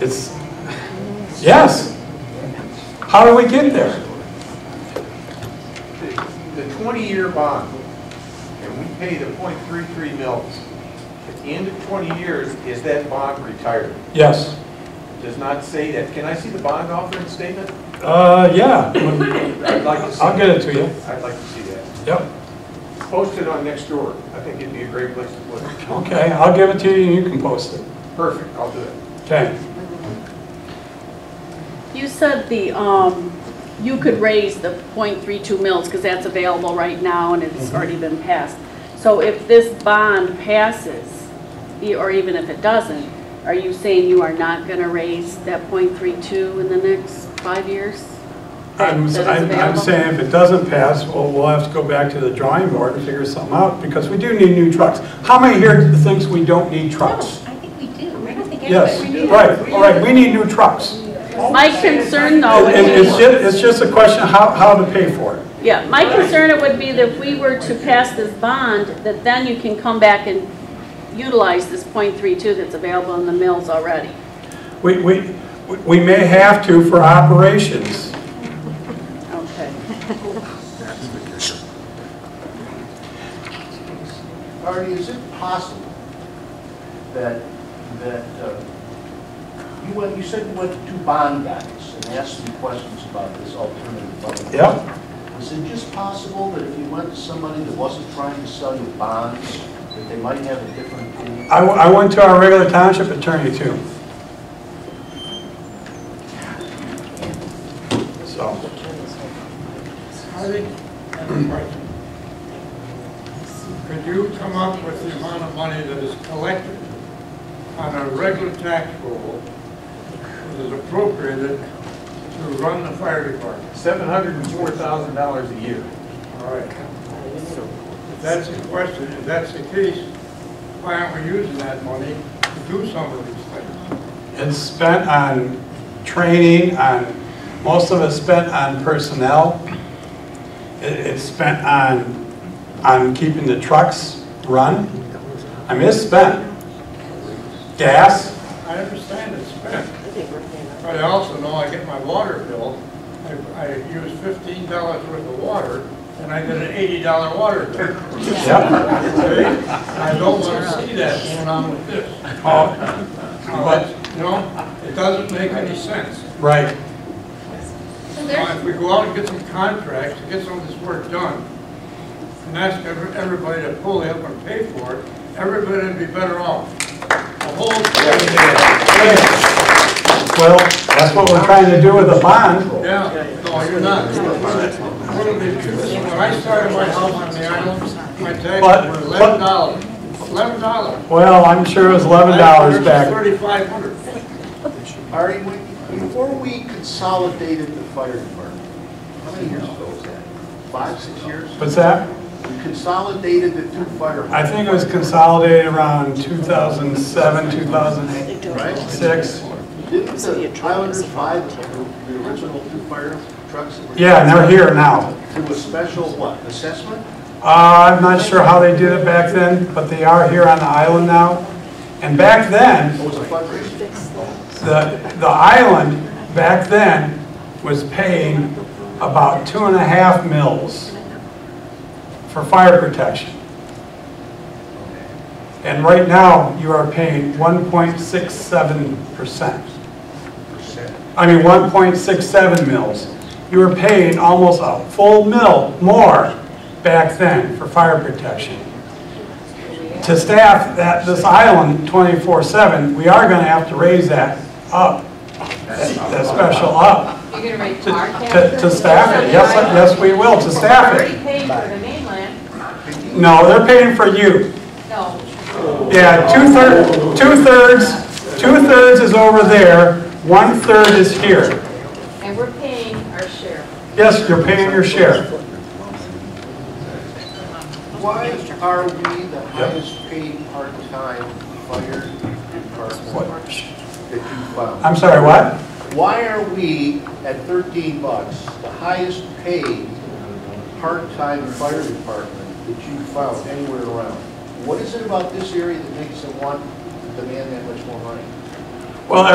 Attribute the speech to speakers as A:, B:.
A: It's, yes. How do we get there?
B: The 20-year bond, and we pay the .33 mils. At the end of 20 years, is that bond retired?
A: Yes.
B: Does not say that. Can I see the bond offering statement?
A: Uh, yeah,
B: I'd like to see.
A: I'll get it to you.
B: I'd like to see that.
A: Yep.
B: Post it on next door. I think it'd be a great place to put it.
A: Okay, I'll give it to you and you can post it.
B: Perfect, I'll do it.
A: Okay.
C: You said the, um, you could raise the .32 mils, because that's available right now, and it's
A: Mm-hmm.
C: already been passed. So if this bond passes, e- or even if it doesn't, are you saying you are not going to raise that .32 in the next five years?
A: I'm,
C: That is
A: I'm I'm
C: available?
A: saying if it doesn't pass, well, we'll have to go back to the drawing board and figure something out because we do need new trucks. How many here thinks we don't need
D: No,
A: trucks?
D: I think we do. I don't think
A: Yes,
D: everybody knew.
A: right, all right, we need Oh, new trucks.
C: My concern though
A: And
C: would
A: it's
C: be,
A: just, it's just a question of how, how to pay for it.
C: yeah, my concern it would be that if we were to pass this bond, that then you can come back and utilize this .32 that's available in the mills already.
A: We, we, we may have to for operations.
C: Okay.
E: Artie, is it possible that, that, uh, you went, you said you went to two bond guys and asked them questions about this alternative budget?
A: Yep.
E: Is it just possible that if you went to somebody that wasn't trying to sell you bonds, that they might have a different opinion?
A: I, w- I went to our regular township attorney too. So,
F: Harvey, and Mike, could you come up with the amount of money that is collected on a regular tax roll that is appropriated to run the fire department?
B: $704,000 a year.
F: All right. If that's the question, if that's the case, why aren't we using that money to do some of these things?
A: it's spent on training, on, most of it's spent on personnel. It, it's spent on, on keeping the trucks run. I mean, it's spent. Gas,
F: I understand it's spent, but I also know I get my water bill. I, I use fifteen dollars worth of water, and I get an eighty dollar water bill.
A: yep.
F: Okay? I don't want to see that going on with this.
A: Oh,
F: Now, that's- You know, it doesn't make any sense.
A: right.
D: So
F: Now,
D: there's,
F: if we go out and get some contracts, to get some of this work done, and ask every- everybody to pull up and pay for it, everybody would be better off. The whole
A: Well, that's what we're trying to do with the bond.
F: Yeah, no, you're not. When I started my house on the island, my taxes
A: But-
F: were eleven dollars, eleven dollars.
A: Well, I'm sure it was eleven dollars back.
F: Thirty-five hundred.
E: Artie, when- before we consolidated the fire department, how many years ago was that? Five, six years?
A: What's that?
E: We consolidated the two fire
A: I think it was consolidated around two thousand seven, two thousand eight,
E: Right.
A: six.
E: Didn't the Highlanders buy the the original two fire trucks? that were-
A: Yeah, and they're here now.
E: To a special, what, assessment?
A: Uh, I'm not sure how they did it back then, but they are here on the island now. And back then,
E: Or was it fundraising?
A: the, the island back then was paying about two and a half mils for fire protection. And right now, you are paying 1.67%. I mean, 1.67 mils. You were paying almost a full mill more back then for fire protection. To staff that, this island 24/7, we are going to have to raise that up, that special up,
G: You're gonna raise
A: to,
G: our
A: to
G: taxes?
A: to staff it. Yes, I- yes, we will, to staff
G: Already
A: it.
G: paid for the mainland,
A: No, they're paying for you.
G: no.
A: Yeah, two-thirds, two-thirds, two-thirds is over there, one-third is here.
G: And we're paying our share.
A: Yes, you're paying your share.
E: Why are we the highest paid part-time fire department that you found?
A: I'm sorry, what?
E: Why are we at 13 bucks, the highest paid part-time fire department that you found anywhere around? What is it about this area that makes them want, to demand that much more money?
A: Well,